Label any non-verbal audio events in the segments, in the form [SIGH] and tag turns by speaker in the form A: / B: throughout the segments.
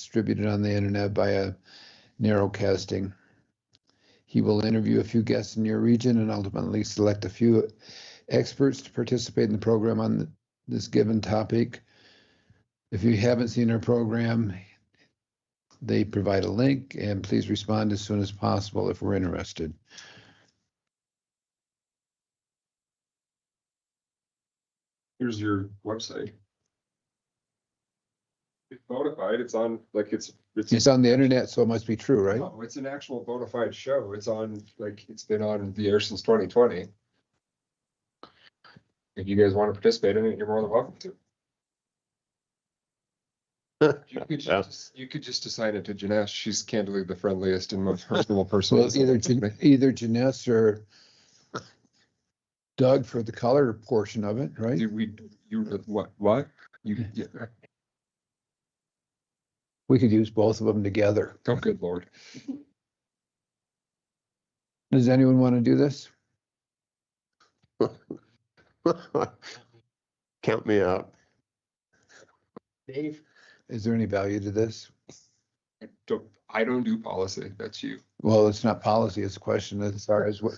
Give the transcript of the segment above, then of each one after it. A: distributed on the internet via narrowcasting. He will interview a few guests in your region and ultimately select a few experts to participate in the program on this given topic. If you haven't seen our program, they provide a link and please respond as soon as possible if we're interested.
B: Here's your website. It's bona fide, it's on, like, it's, it's,
A: It's on the internet, so it must be true, right?
B: no, it's an actual bona fide show, it's on, like, it's been on the air since twenty twenty. If you guys wanna participate in it, you're more than welcome to. You
A: [LAUGHS]
B: could
C: Yeah.
B: just, you could just assign it to Janesh, she's candidly the friendliest and most personable person.
A: So it's either, Jan- either Janess or Doug for the color portion of it, right?
B: Do we, you, what, what? You, yeah,
A: We could use both of them together.
B: oh, good lord.
A: Does anyone want to do this?
C: Count me out.
D: Dave,
A: Is there any value to this?
B: I don't, I don't do policy, that's you.
A: Well, it's not policy, it's a question as far as what,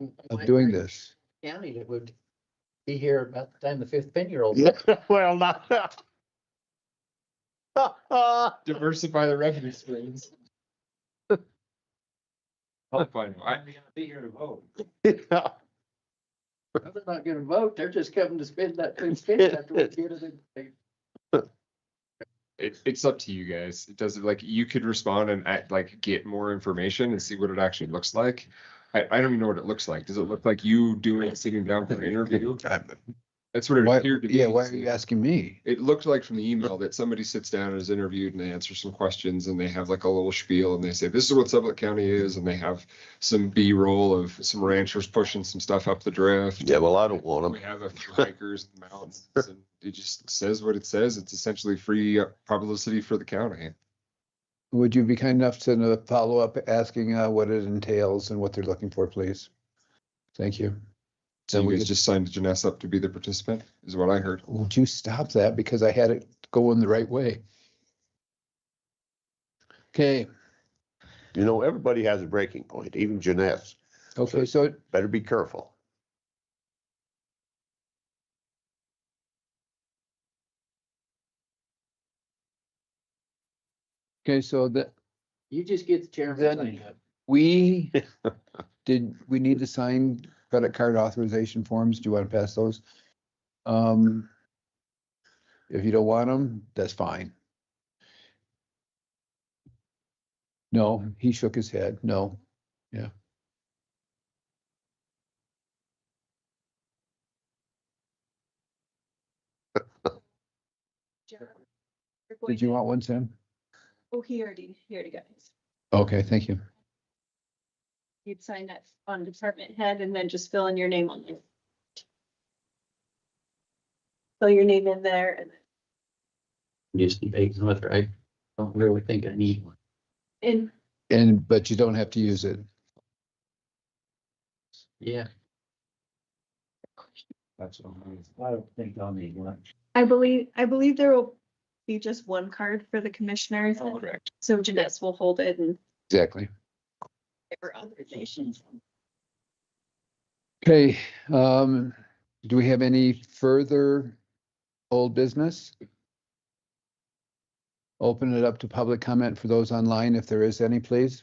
A: of
D: my
A: doing this.
D: County that would be here about the time the fifth ten year old.
C: Well, not.
B: Diversify the revenue streams. I'll find, I,
D: Be here to vote.
C: Well,
D: They're not gonna vote. They're just coming to spend that
A: [LAUGHS]
D: two cents after we get it. in-
B: it, it's up to you guys. It doesn't like you could respond and act, like get more information and see what it actually looks like. I, I don't even know what it looks like. Does it look like you doing sitting down for an interview? That's what it
A: Why,
B: appeared to be.
A: yeah, why are you asking me?
B: It looked like from the email that somebody sits down and is interviewed and they answer some questions and they have like a little spiel and they say, this is what Sublette County is. And they have some B roll of some ranchers pushing some stuff up the drift.
C: Yeah, well, I don't want
B: We
C: them.
B: have a few hikers in the mountains. and It just says what it says. It's essentially free uh, publicity for the county.
A: Would you be kind enough to uh, follow up asking uh, what it entails and what they're looking for, please? Thank you.
B: So
A: Then
B: you
A: we
B: guys
A: could-
B: just signed Janessa up to be the participant, is what I heard.
A: Would you stop that? Because I had it going the right way. Okay,
C: You know, everybody has a breaking point, even Janess.
A: okay, so
C: Better be careful.
A: Okay, so that,
D: You just get the chairman.
A: Then-
D: sign up.
A: we, did, we need to sign credit card authorization forms, do you want to pass those? Um, if you don't want them, that's fine. No, he shook his head, no, yeah.
E: John, you're going
A: Did you
E: to-
A: want one, Sam?
E: Oh, he already, he already got his.
A: Okay, thank you.
E: You'd sign that on department head and then just fill in your name on it. Fill your name in there and,
D: Just debate them with, I don't really think I need one.
E: and
A: And, but you don't have to use it.
D: Yeah,
B: That's what I'm.
D: I don't think I'll need one.
E: I believe, I believe there will be just one card for the commissioners.
A: Oh,
B: Correct.
E: So Janess will hold it and
A: Exactly.
E: give her authorizations.
A: Okay, um, do we have any further old business? Open it up to public comment for those online, if there is any, please,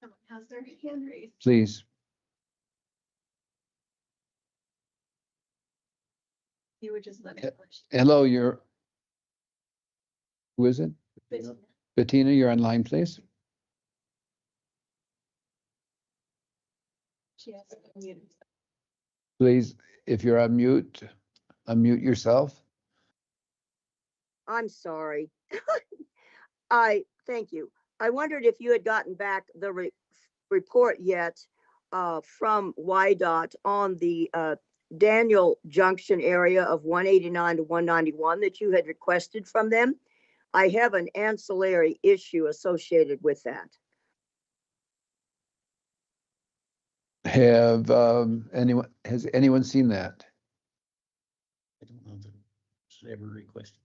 E: Someone has their hand raised.
A: please.
E: You would just let me.
A: Yeah. Hello, you're. Who is it?
E: But-
A: Bettina, you're online, please.
E: She has. it muted.
A: Please, if you're on mute, unmute yourself.
F: I'm sorry. [LAUGHS] I, thank you. I wondered if you had gotten back the re- report yet uh, from YDOT on the uh, Daniel Junction area of 189 to 191 that you had requested from them. I have an ancillary issue associated with that.
A: Have, um, anyone, has anyone seen that?
D: I don't know that it's ever requested.